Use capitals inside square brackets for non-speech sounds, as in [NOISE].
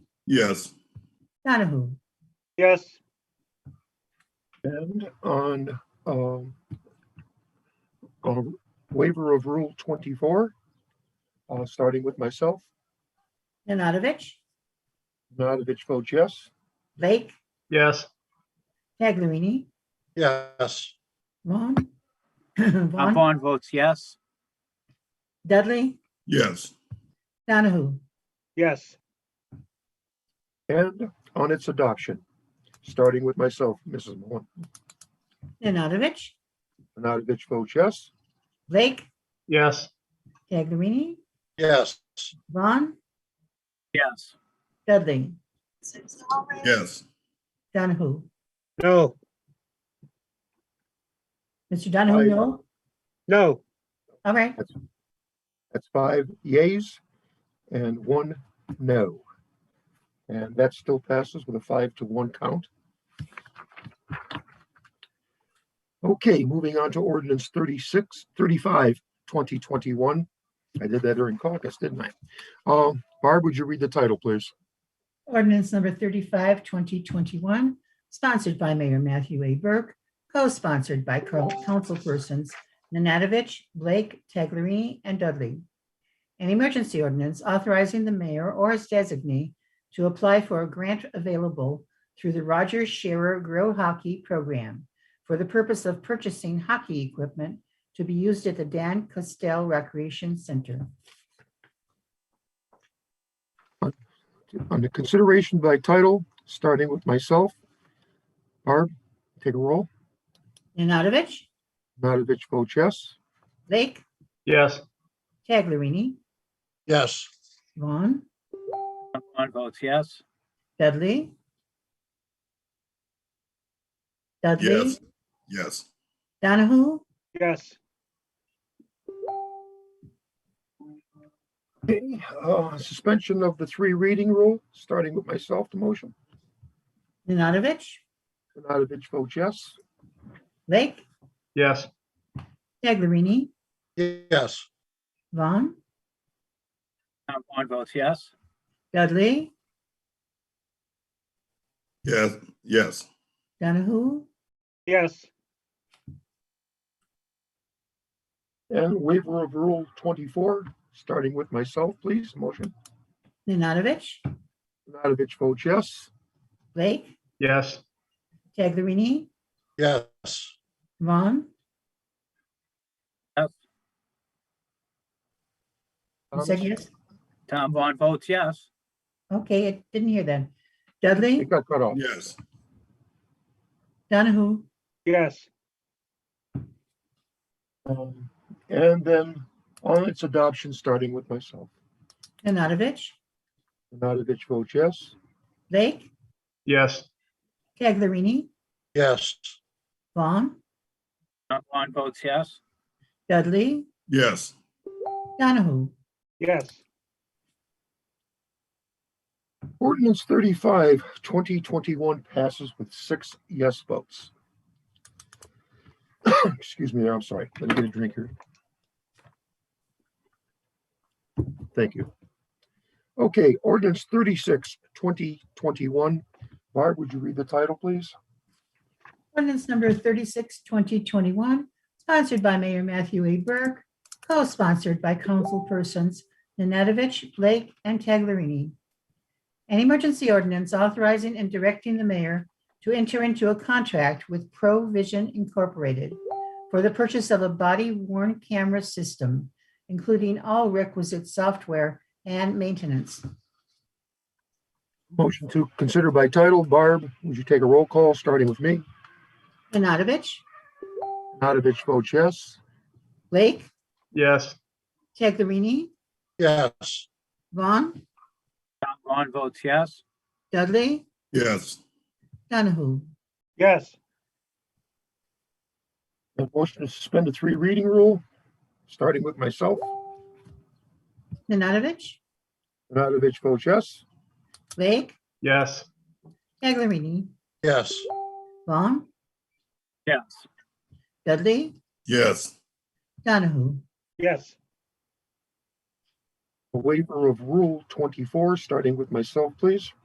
Yes, Donahue, yes, And on um, a waiver of Rule 24, uh, starting with myself, Nanadovich, Nanavich votes yes. Blake, yes, Taglerini, yes, Vaughn, [COUGHS] Uh, Vaughn, Vaughn votes yes, Dudley, yes, Donahue, yes, And on its adoption, starting with myself, Mrs. Mon- Nanadovich, Nanavich votes yes. Blake, yes, Taglerini, yes, Vaughn, yes, Dudley, yes, Donahue. no, Mr. Donahue, Aye. no? no, All right, That's five yays and one no. And that still passes with a five to one count. Okay, moving on to ordinance 36, 35, 2021. I did that during caucus, didn't I? Um, Barb, would you read the title, please? ordinance number 35, 2021, sponsored by Mayor Matthew A. Burke, co-sponsored by co- councilpersons Nanadovich, Blake, Taglerini, and Dudley. An emergency ordinance authorizing the mayor or his designee to apply for a grant available through the Rogers Sharer Grow Hockey Program for the purpose of purchasing hockey equipment to be used at the Dan Costell Recreation Center. Under consideration by title, starting with myself. Barb, take a roll. Nanadovich, Nanavich votes yes. Blake, yes, Taglerini, yes, Vaughn, Vaughn votes yes, Dudley? Dudley? yes, yes, Donahue? yes, Okay, uh, suspension of the three reading rule, starting with myself, the motion. Nanadovich? Nanavich votes yes. Blake? yes, Taglerini? yes, Vaughn? Uh, Vaughn votes yes, Dudley? yes, yes, Donahue? yes, And waiver of rule twenty-four, starting with myself, please, motion. Nanadovich? Nanavich votes yes. Blake? yes, Taglerini? yes, Vaughn? Yes. You said yes? Tom Vaughn votes yes, Okay, I didn't hear that. Um, It Dudley? got cut off. yes, Donahue? yes, Um, And then on its adoption, starting with myself. Nanadovich? Nanavich votes yes. Blake? yes, Taglerini? yes, Vaughn? Tom Vaughn votes yes, Dudley? yes, Donahue? yes, Ordinance 35, 2021 passes with six yes votes. [COUGHS] Excuse me there, I'm sorry. Let me get a drink here. Thank you. Okay, ordinance 36, 2021. Barb, would you read the title, please? Ordinance number 36, 2021, sponsored by Mayor Matthew A. Burke, co-sponsored by councilpersons Nanadovich, Blake, and Taglerini. An emergency ordinance authorizing and directing the mayor to enter into a contract with Provision Incorporated for the purchase of a body worn camera system, including all requisite software and maintenance. Motion to consider by title. Barb, would you take a roll call, starting with me? Nanadovich, Nanavich votes yes. Blake, yes, Taglerini, yes, Vaughn, Tom Vaughn votes yes, Dudley, yes, Donahue. yes, And motion to suspend the three reading rule, starting with myself. Nanadovich, Nanavich votes yes. Blake, yes, Taglerini, yes, Vaughn, yes, Dudley, yes, Donahue, yes, A waiver of Rule 24, starting with myself, please.